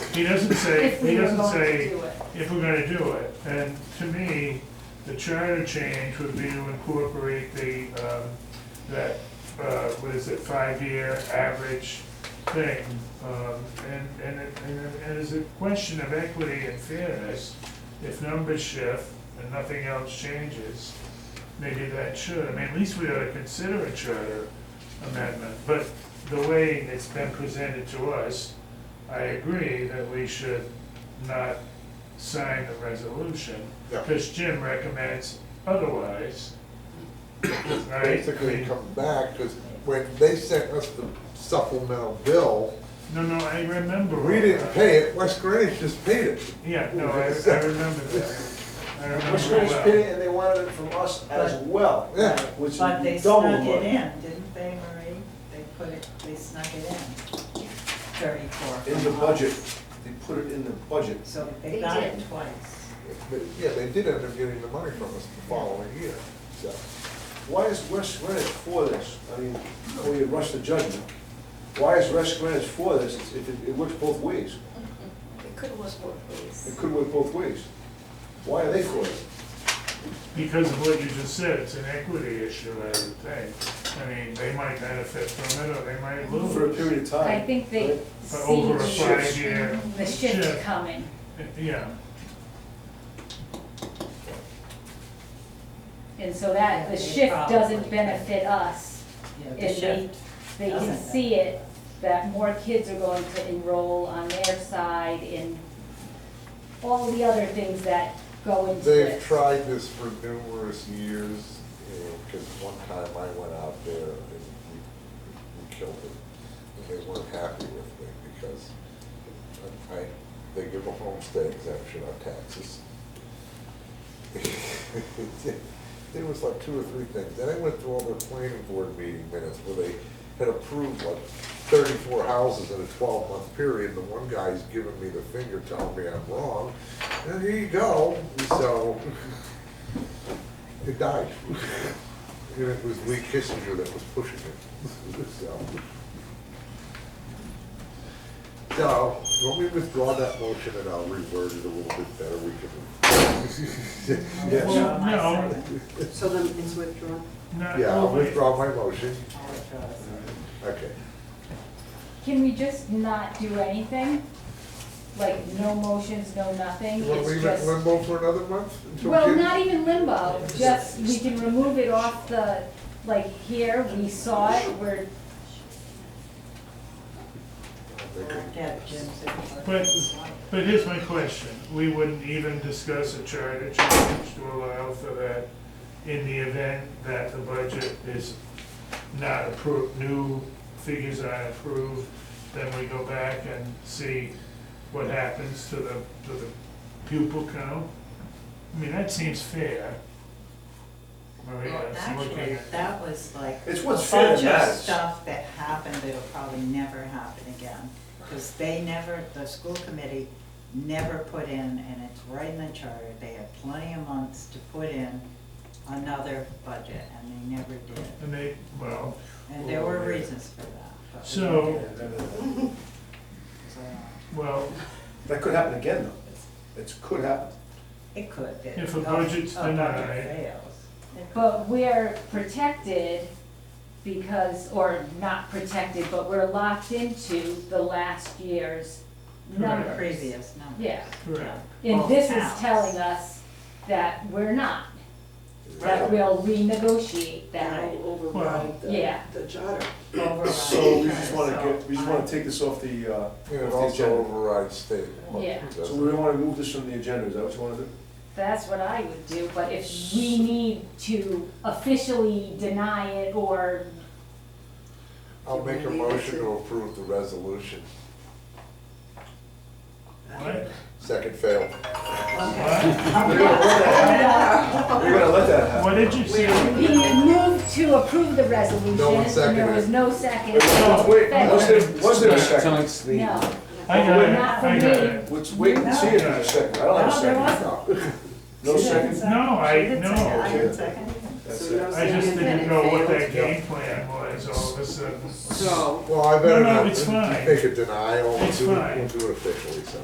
He doesn't say, if he we were doesn't going to say, do uh, it. if we're gonna do it, and to me, the charter change would be to incorporate the, um, that, uh, what is it, five-year average thing. Um, and, and it, and it- and it's a question of equity and fairness, if numbers shift and nothing else changes, maybe that should, I mean, at least we ought to consider a charter amendment, but the way it's been presented to us, I agree that we should not sign the resolution, Yeah. because Jim recommends otherwise. Right? Basically, come back, because when they sent us the supplemental bill, No, no, I remember. we didn't pay it, West Greenwich just paid it. Yeah, no, I, I remember that. I remember Which was well. pity, and they wanted it from us as well, Yeah. which is But they double snuck it money. in, didn't they, Marie? They put it, they snuck it in, thirty-four. In the budget, they put it in the budget. So They they got it did. twice. But, yeah, they did end up getting the money from us the following year, so. Why is West Greenwich for this? I mean, before you rush the judgment, why is West Greenwich for this if it, it works both ways? It could have worked both It ways. could work both ways. Why are they for it? Because of what you just said, it's an equity issue, I would think. I mean, they might benefit from it, or they might lose. For a period of time. I think they right? But over a see five-year the shift shift, coming. yeah. And so that, the shift doesn't benefit us. Yeah, the If they, shift. they can doesn't. see it, that more kids are going to enroll on their side in all the other things that go into They've this. tried this for numerous years, because one time I went out there and we, we killed it. And they weren't happy with me because I, they give a homestead exemption on taxes. There was like two or three things, and I went through all their planning board meeting minutes where they had approved like thirty-four houses in a twelve-month period, and the one guy's giving me the finger telling me I'm wrong, and here you go, so it died. And it was Lee Kissinger that was pushing it, so. So, let me withdraw that motion and I'll reword it a little bit better, we can. Yes. Well, no, So then it's withdrawn? no. Yeah, I'll well, wait. withdraw my motion, All it does. okay. Can we just not do anything? Like, no motions, no nothing, You want to it's leave it in just. limbo for another month? until Well, June? not e- even limbo, just, we can remove it off the, like, here, we saw it, we're They could- Get Jim's input. But, but here's my question, we wouldn't even discuss a charter change to allow for that in the event that the budget is not approved, new figures aren't approved, then we go back and see what happens to the, to the pupil count? I mean, that seems fair. Maria, Well, it's looking actually, at- that was like. It's what's a fair bunch of matters. Stuff that happened that'll probably never happen again, because they never, the school committee never put in, and it's right in the charter, they had plenty of months to put in another budget, and they never did. and they, well, And there were reasons for that. but we So- didn't do it, so well, That could happen again, though. It could happen. It could. it- If a budget's A denied. budget fails. it could. But we're protected because, or not protected, but we're locked into the last year's Correct. numbers. Previous numbers. Yeah, correct, and Well, this is counts. telling us that we're not, that Right. we'll renegotiate that. That'll override the, Yeah. the charter. Override. So we just wanna get, we just So, wanna take this off the, uh, off And it the also agenda. overrides state law. Yeah. So we wanna remove this from the agenda, is that what you wanna do? That's what I would do, but if we need to officially deny it or, I'll make a Leave it motion to- to approve the resolution. what? Second fail. What? We're gonna let that happen. We're gonna let that happen. What did you say? he moved to approve the resolution, No one and there seconded was it. no second. Wait, wait, was there, was there a second? No, I got it, Not for I got me. it. Let's wait and see if there's a second, I don't have a No, there second. No She didn't second? second- No, I- she didn't no. second- I didn't second it. That's So it. no I just second, then didn't it know what that fails. game plan was all of a sudden. So. Well, I better No, no, not it's fine. make a denial. We'll It's do it- fine. We'll do it officially, so.